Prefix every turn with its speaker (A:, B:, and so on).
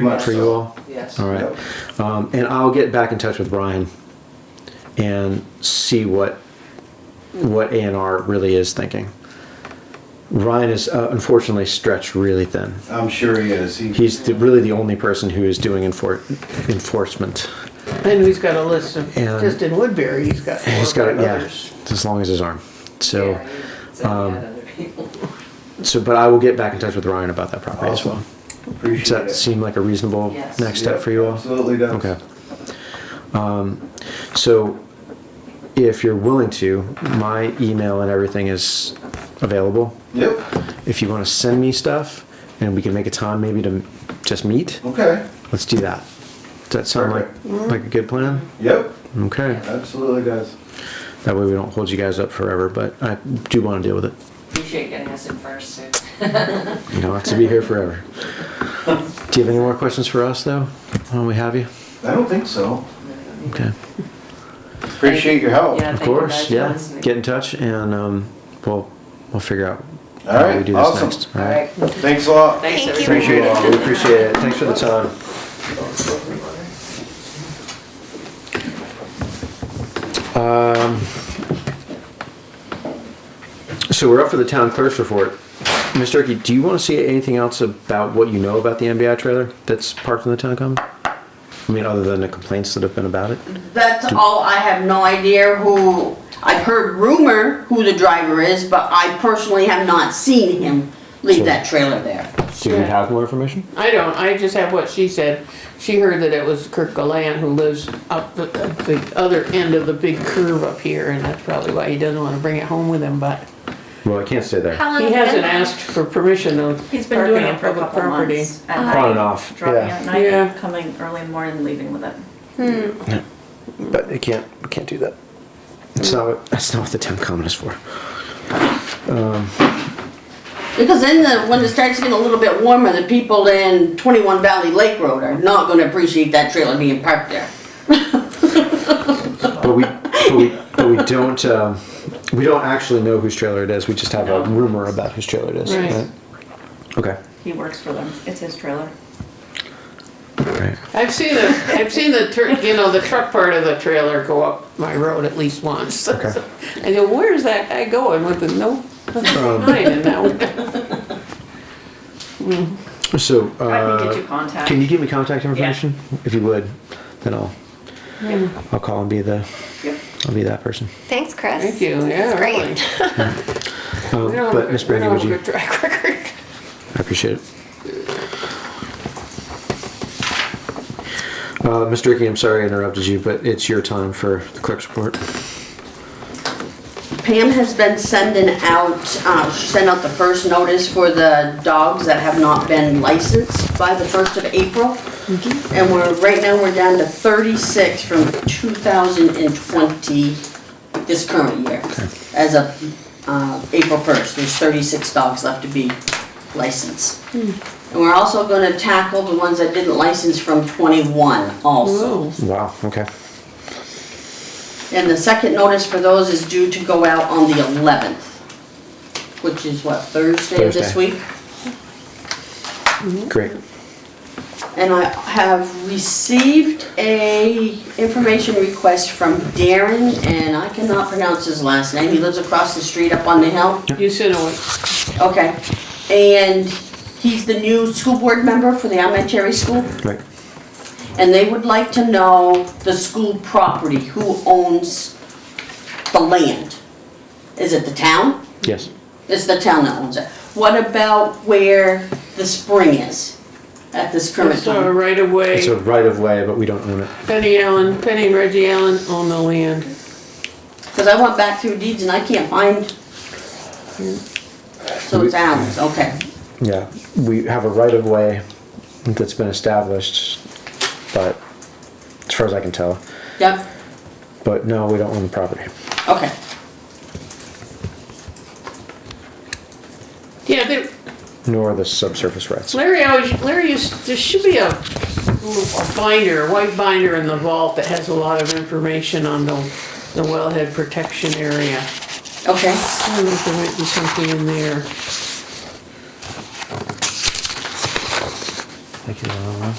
A: Pretty much
B: for you
A: so.
B: all?
A: Yes.
B: All right. Um, and I'll get back in touch with Brian and see what, what A and R really is thinking. Ryan is uh, unfortunately stretched really thin.
A: I'm sure he is. He,
B: He's the, really the only person who is doing enfor- enforcement.
C: And he's got a list of,
B: And-
C: just in Woodbury, he's got four
B: He's got,
C: or
B: it,
C: five
B: yeah,
C: others.
B: it's as long as his arm. So, um,
D: Yeah, so you had other people.
B: so, but I will get back in touch with Ryan about that property as well.
A: Awesome. appreciate
B: Does that
A: it.
B: seem like a reasonable
D: Yes.
B: next step
A: Yep,
B: for you all?
A: Absolutely does.
B: Okay. Um, so if you're willing to, my email and everything is available.
A: Yep.
B: If you want to send me stuff and we can make a time maybe to just meet,
A: Okay.
B: let's do that. Does that sound like, like a good plan?
A: Yep.
B: Okay.
A: Absolutely does.
B: That way we don't hold you guys up forever, but I do want to deal with it.
D: Appreciate getting us in first, Sue.
B: You don't have to be here forever. Do you have any more questions for us though? While we have you?
A: I don't think so.
B: Okay.
A: Appreciate your help.
D: Yeah.
B: Of
D: Thank you guys
B: course,
D: for
B: yeah.
D: listening.
B: Get in touch and um, we'll, we'll figure out
A: All
B: how
A: right,
B: we do this
A: awesome.
B: next.
D: All right,
A: Thanks a lot.
D: thanks everybody.
A: Appreciate it.
B: We appreciate it. Thanks for the time. Um, So we're up for the town clerk's report. Ms. Turkey, do you want to see anything else about what you know about the MBI trailer that's parked in the town common? I mean, other than the complaints that have been about it?
E: That's all, I have no idea who, I've heard rumor who the driver is, but I personally have not seen him leave that trailer there.
B: Do you have more information?
C: I don't, I just have what she said. She heard that it was Kirk Galan who lives up the, at the other end of the big curve up here, and that's probably why he doesn't wanna bring it home with him, but
B: Well, I can't stay there.
F: How long
C: he
F: has it been
C: hasn't
F: there?
C: asked for permission of
F: He's been
C: parking
F: doing
C: on
F: it for a
C: public
F: couple
C: property.
F: months. At
B: On
F: night,
B: and off.
F: dropping
B: yeah.
F: at night,
C: Yeah.
F: and coming early in the morning, leaving with it.
B: But it can't, it can't do that. It's not, what- that's not what the town common is for.
E: Because then the, when it starts getting a little bit warmer, the people in twenty-one Valley Lake Road are not gonna appreciate that trailer being parked there.
B: But we, but we, but we don't, um, we don't actually know whose trailer it is. We just have a rumor about whose trailer it is.
C: Right.
B: Okay.
F: He works for them. It's his trailer.
B: Right.
C: I've seen the, I've seen the, tur- you know, the truck part of the trailer go up my road at least once.
B: Okay.
C: I go, where's that guy going with the no,
B: Um,
C: mine in that one?
B: So,
F: I can get
B: uh,
F: you contact.
B: can you give me contact information? If you would, then I'll, I'll call and be the,
F: Yep.
B: I'll be that person.
G: Thanks, Chris.
C: Thank you, yeah,
G: That's great.
C: really.
B: Um,
C: We don't have a
B: But
C: good-
B: Miss
C: we
B: Brandy,
C: don't
B: would
C: have a
B: you,
C: good track record.
B: I appreciate it. Uh, Mr. Dickey, I'm sorry I interrupted you, but it's your time for the clerk's report.
E: Pam has been sending out, uh, she sent out the first notice for the dogs that have not been licensed by the first of April. And we're, right now, we're down to thirty-six from two thousand and twenty, this current year. As of, uh, April first, there's thirty-six dogs left to be licensed. And we're also gonna tackle the ones that didn't license from twenty-one also.
C: Whoa.
B: Wow, okay.
E: And the second notice for those is due to go out on the eleventh, which is what, Thursday of this
B: Thursday.
E: week?
B: Great.
E: And I have received a information request from Darren, and I cannot pronounce his last name, he lives across the street up on the hill.
C: You should have went
E: Okay, and he's the new school board member for the elementary school,
B: Right.
E: and they would like to know the school property, who owns the land? Is it the town?
B: Yes.
E: It's the town that owns it. What about where the spring is at this current
C: It's a
E: time?
C: right of way.
B: It's a right of way, but we don't own it.
C: Penny Allen, Penny and Reggie Allen own the land.
E: Because I went back through deeds and I can't find. So it's Allen's, okay.
B: Yeah, we have a right of way that's been established, but as far as I can tell,
E: Yep,
B: but no, we don't own the property.
E: okay.
C: Yeah, they-
B: Nor the subsurface rights.
C: Larry always, Larry used, there should be a little binder, a white binder in the vault that has a lot of information on the, the wellhead protection area.
E: Okay,
C: I don't know if there might be something in there.
B: Thank you, Laura.